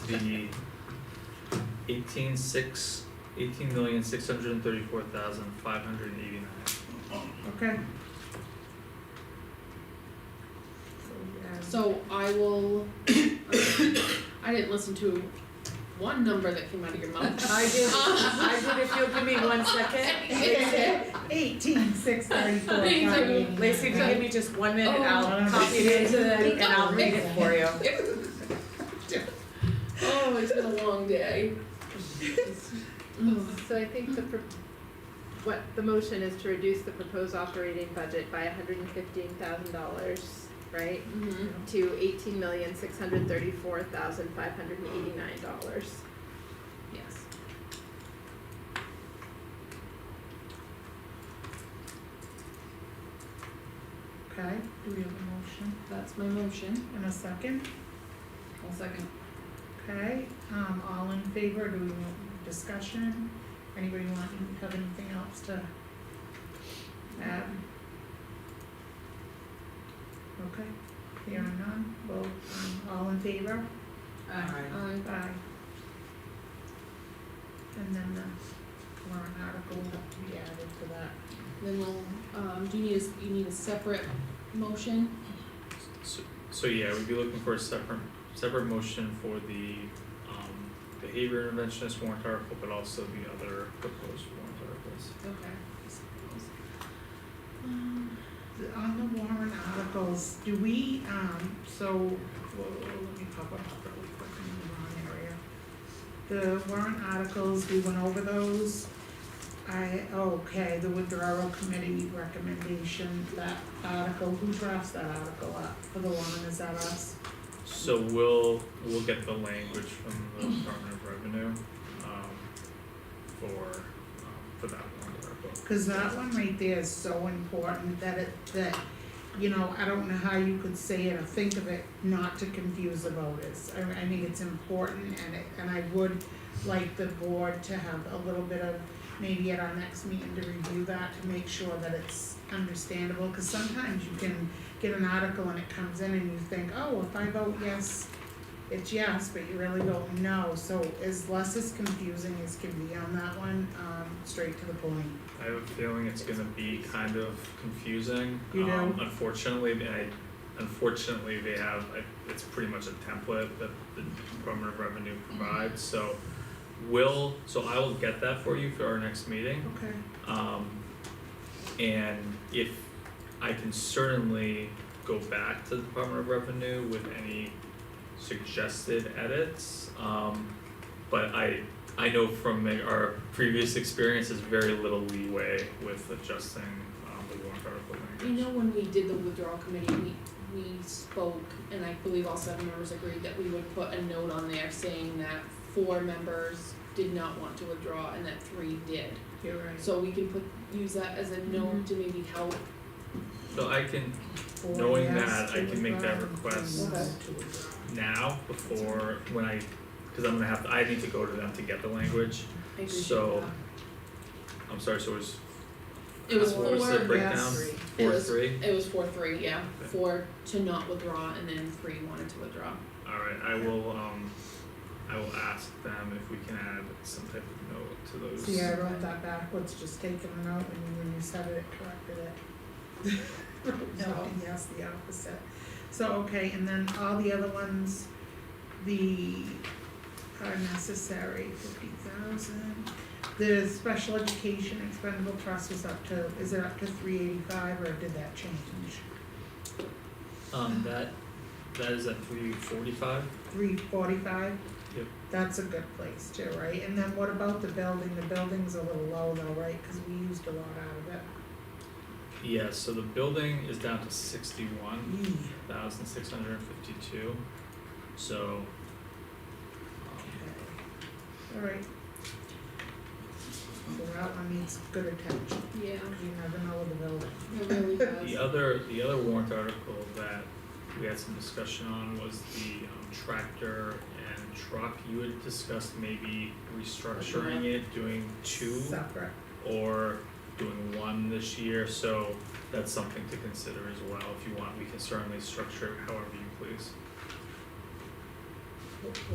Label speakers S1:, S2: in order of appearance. S1: the eighteen six, eighteen million six hundred and thirty-four thousand five hundred and eighty-nine.
S2: Okay. So,
S3: So I will, I didn't listen to one number that came out of your mouth.
S4: I did, I did, if you'll give me one second.
S2: yeah. Eighteen, six thirty-four,
S3: Amazing.
S4: Lacey, if you give me just one minute, I'll copy it into the, and I'll read it for you.
S3: Oh, it's been a long day. Mm-hmm.
S5: So I think the, pro- what the motion is to reduce the proposed operating budget by hundred and fifteen thousand dollars, right?
S3: Mhm.
S5: To eighteen million, six hundred thirty-four thousand, five hundred and eighty-nine dollars.
S3: Yes.
S2: Okay, do we have a motion
S3: That's my motion.
S2: and a second?
S3: I'll second.
S2: Okay, um, all in favor, do we want discussion? Anybody want, have anything else to add? Okay, here are none, vote, um, all in favor?
S3: Aye.
S2: Aye. And then the warrant article will have to be added to that.
S3: Then we'll, um, do you need a, s- you need a separate motion?
S1: So, so yeah, we'd be looking for a separate, separate motion for the, um, behavior interventionist warrant article, but also the other proposed warrant articles.
S3: Okay.
S2: The- Um, On the warrant articles, do we, um, so, whoa, let me pop up really quick in the wrong area. The warrant articles, we went over those. I, okay, the withdrawal committee recommendation, that article, who drafts that article up for the warrant, is that us?
S1: So we'll, we'll get the language from the Department of Revenue, um, for, um, for that warrant article.
S2: Cause that one right there is so important that it, that, you know, I don't know how you could say it or think of it not to confuse the voters. I, I mean, it's important and it, and I would like the board to have a little bit of, maybe at our next meeting to review that to make sure that it's understandable. Cause sometimes you can get an article and it comes in and you think, oh, if I vote yes, it's yes, but you really vote no. So as less as confusing as can be on that one, um, straight to the point.
S1: I have a feeling it's gonna be kind of confusing,
S2: You do?
S1: um, unfortunately, and I, unfortunately, they have, I, it's pretty much a template that the Department of Revenue provides, so will, so I will get that for you for our next meeting.
S2: Okay.
S1: Um, and if, I can certainly go back to the Department of Revenue with any suggested edits. Um, but I, I know from like, our previous experience, there's very little leeway with adjusting, um, the warrant article
S3: I
S1: language.
S3: know when we did the withdrawal committee, we, we spoke, and I believe all seven members agreed that we would put a note on there saying that four members did not want to withdraw and that three did.
S2: You're right.
S3: So we can put, use that as a note to maybe help.
S1: So I can
S2: Four
S1: Knowing
S2: yes,
S1: that, I
S2: two
S1: can make that
S2: withdrawn,
S1: request.
S2: and no
S3: Okay.
S2: to withdraw.
S1: now before, when I, cause I'm gonna have, to- I need to go to them to get the language.
S3: I appreciate
S1: So,
S3: that.
S1: I'm sorry, so it was,
S3: It was
S1: what was the
S3: four,
S1: breakdown?
S2: yes.
S3: It
S1: Four,
S3: was-
S1: three?
S3: it was four, three, yeah,
S1: Okay.
S3: four to not withdraw and then three wanted to withdraw.
S1: Alright, I will, um, I will ask them if we can add some type of note to those.
S2: See, I wrote that backwards, just taking it out, and when you said it, it corrected it. No, yes, the opposite. So, okay, and then all the other ones, the, are necessary, fifty thousand. The special education expendable trust was up to, is it up to three eighty-five, or did that change?
S1: Um, that, that is at three forty-five?
S2: three forty-five?
S1: Yep.
S2: That's a good place too, right? And then what about the building? The building's a little low though, right? Cause we used a lot out of
S1: Yeah, so the building is down to sixty-one
S2: it.
S1: thousand six hundred and fifty-two, so. um,
S2: Alright. So that one needs good attention.
S3: Yeah,
S2: You never know with the building.
S3: it really
S1: The
S3: does.
S1: other, the other warrant article that we had some discussion on was the um, tractor and truck. You had discussed maybe restructuring it, doing two
S2: Separate.
S1: or doing one this year, so that's something to consider as well. If you want, we can certainly structure it however you please.